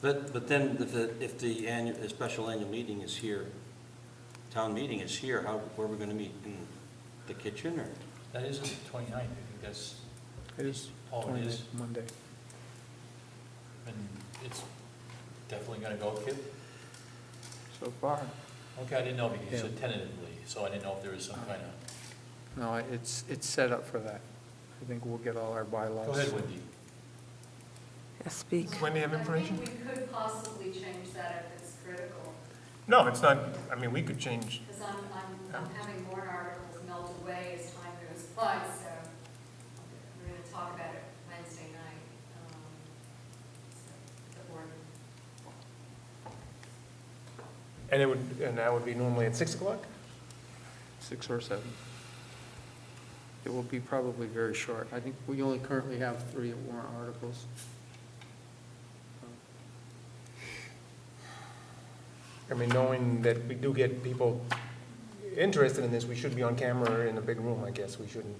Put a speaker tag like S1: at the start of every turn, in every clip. S1: But, but then if the, if the annual, the special annual meeting is here, town meeting is here, how, where are we gonna meet? In the kitchen or?
S2: That isn't the 29th. I think that's,
S3: It is
S2: Oh, it is?
S3: 29th, Monday.
S2: and it's definitely gonna go, Kip?
S3: So far,
S2: Okay, I didn't know because you said
S3: Yeah.
S2: tentatively, so I didn't know if there was some kind of,
S3: no, it's, it's set up for that. I think we'll get all our bylaws.
S2: go ahead, Wendy.
S4: Yeah, Speak.
S5: When do you have
S6: I
S5: information?
S6: think we could possibly change that if it's critical,
S5: No, it's not, I mean, we could change,
S6: because I'm, I'm,
S5: Oh.
S6: I'm having warrant articles melt away as time goes by, so we're gonna talk about it Wednesday night, um, so, the board.
S5: and it would, and that would be normally at 6 o'clock?
S3: Six or seven. It will be probably very short. I think we only currently have three warrant articles.
S5: I mean, knowing that we do get people interested in this, we should be on camera in a big room, I guess. We shouldn't,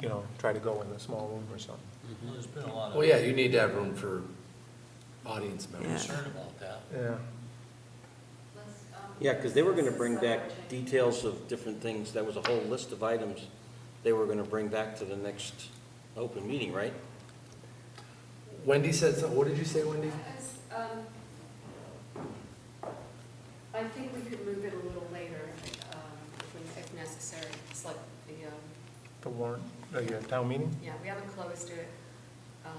S5: you know, try to go in a small room or something.
S2: Well, There's been a lot
S3: Oh,
S7: Well, yeah,
S2: of
S7: you need to have room for audience members.
S2: concern about that.
S5: Yeah.
S6: Let's, um, uh,
S1: Yeah, because they were gonna bring
S6: this is
S1: back
S6: separate change.
S1: details of different things, that was a whole list of items they were gonna bring back to the next open meeting, right?
S7: Wendy said, so- what did you say, Wendy?
S6: As, um, I think we could move it a little later, um, if- if necessary, it's like the, um,
S5: The warrant, the uh, town meeting?
S6: Yeah, we haven't closed it. Um,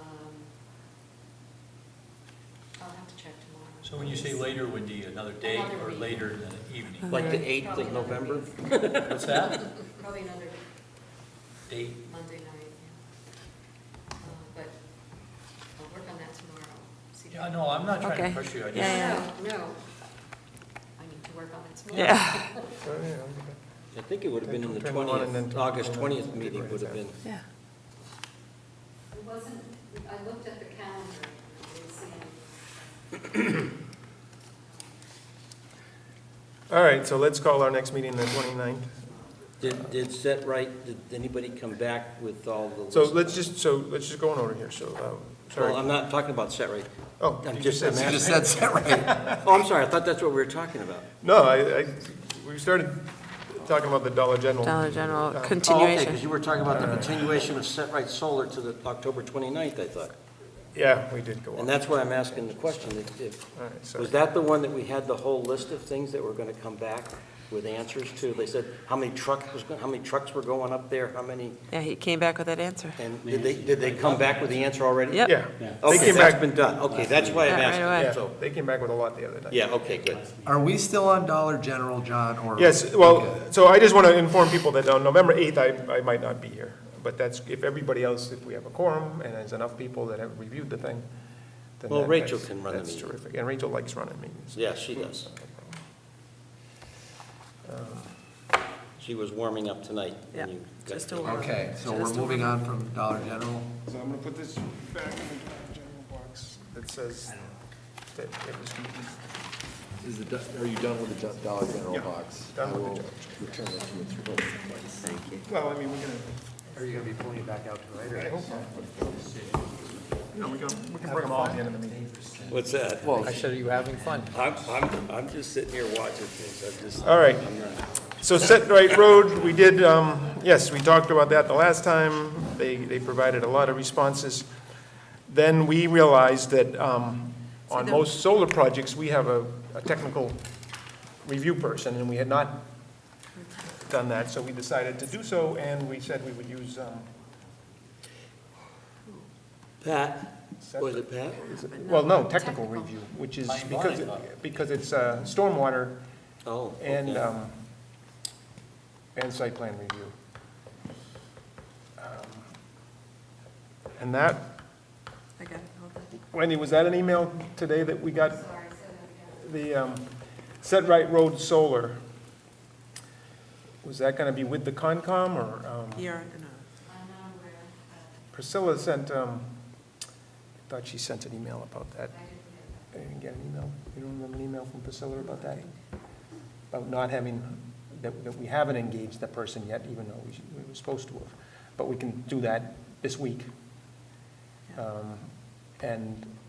S6: I'll have to check tomorrow.
S2: So when you say later, Wendy, another day
S6: Another
S2: or
S6: week.
S2: later in the evening?
S1: Like the
S4: Alright.
S1: eighth
S6: Probably
S1: of
S6: another
S1: November?
S6: week.
S2: What's that?
S6: Probably another
S2: Date?
S6: Monday night, yeah. Uh, But I'll work on that tomorrow. See if
S2: Yeah,
S6: I-
S2: no, I'm not trying
S4: Okay.
S2: to pressure you. I
S4: Yeah,
S2: just,
S4: yeah.
S6: No, no. I need to work on it tomorrow.
S4: Yeah,
S5: Oh, yeah, okay.
S1: I think it would have been in the
S5: 21 and then
S1: twentieth, August
S5: 21.
S1: twentieth meeting would have been.
S4: yeah.
S6: It wasn't, I looked at the calendar, it was in
S5: All right, so let's call our next meeting the 29th.
S1: Did, did set right, did anybody come back with all the list?
S5: So let's just, so let's just go in order here, so, uh,
S1: Well,
S5: sorry.
S1: I'm not talking about set right.
S5: Oh,
S1: I'm
S5: you
S1: just, I'm
S5: said-
S7: You just
S1: asking.
S7: said that right.
S1: Oh, I'm sorry, I thought that's what we were talking about.
S5: No, I, I, we started talking about the Dollar General.
S4: Dollar General
S1: Oh,
S5: Uh,
S1: okay, because
S4: continuation.
S1: you were talking about the continuation of set right solar to the October 29th, I thought.
S5: Yeah, we did go
S1: And
S5: on. All
S1: that's why I'm asking the question, if- if,
S5: right, so,
S1: Was that the one that we had the whole list of things that were gonna come back with answers to? They said, how many trucks was, go- how many trucks were going up there, how many?
S4: Yeah, he came back with that answer.
S1: And did they, did they come back with the answer already?
S4: Yep.
S5: yeah. They
S1: Okay,
S5: came
S1: that's
S5: back,
S1: been done. Okay, that's why I'm
S4: Yeah, right away.
S1: asking.
S5: yeah,
S1: So,
S5: they came back with a lot the other night.
S1: yeah, okay, good.
S7: Are we still on Dollar General, John, or?
S5: Yes, well, so I just want to inform people that on November 8th, I, I might not be here. But that's, if everybody else, if we have a quorum and there's enough people that have reviewed the thing, then
S1: Well,
S5: that-
S1: Rachel
S5: that's-
S1: can run the
S5: That's
S1: meeting.
S5: terrific, and Rachel likes running meetings.
S1: Yeah, she does. She was warming up tonight. when
S4: Yeah,
S1: you got
S4: just a
S1: here.
S4: warm-
S7: Okay, so we're
S4: Just-
S7: moving on from Dollar General.
S5: So I'm going to put this back in the general box that says that it was
S7: Is the, do- are you done with the Do- Dollar General
S5: Yeah,
S7: box?
S5: done with the
S7: I will
S5: Dollar
S7: Return it to its original place.
S5: Well, I mean, we're going
S7: Are you gonna be pulling it back out to
S5: to, I
S7: later?
S5: hope not. No, we can, we can bring them all at the end of the meeting.
S8: What's that?
S7: Well,
S3: Oh, I said, are you having fun?
S8: I'm, I'm, I'm just sitting here watching things, I'm just.
S5: All right.
S8: I'm not-
S5: So Set Right Road, we did, um, yes, we talked about that the last time. They, they provided a lot of responses. Then we realized that um, on most solar projects, we have a, a technical review person, and we had not done that, so we decided to do so, and we said we would use, um,
S1: Pat, was it Pat?
S5: well, no, technical review, which is
S2: Fine
S5: because,
S2: wine.
S5: it- because it's uh, stormwater
S1: Oh,
S5: and,
S1: okay.
S5: um, and site plan review. Um, And that,
S4: I got it, hold on.
S5: Wendy, was that an email today that we got,
S6: Sorry, so that we got-
S5: the um, Set Right Road Solar? Was that going to be with the Concom, or um,
S4: You're, no.
S6: I'm not aware, but
S5: Priscilla sent, um, I thought she sent an email about that.
S6: I didn't get that.
S5: I didn't get an email. You don't remember an email from Priscilla about that? About not having, that, that we haven't engaged that person yet, even though we, should- we were supposed to have. But we can do that this week. Um, And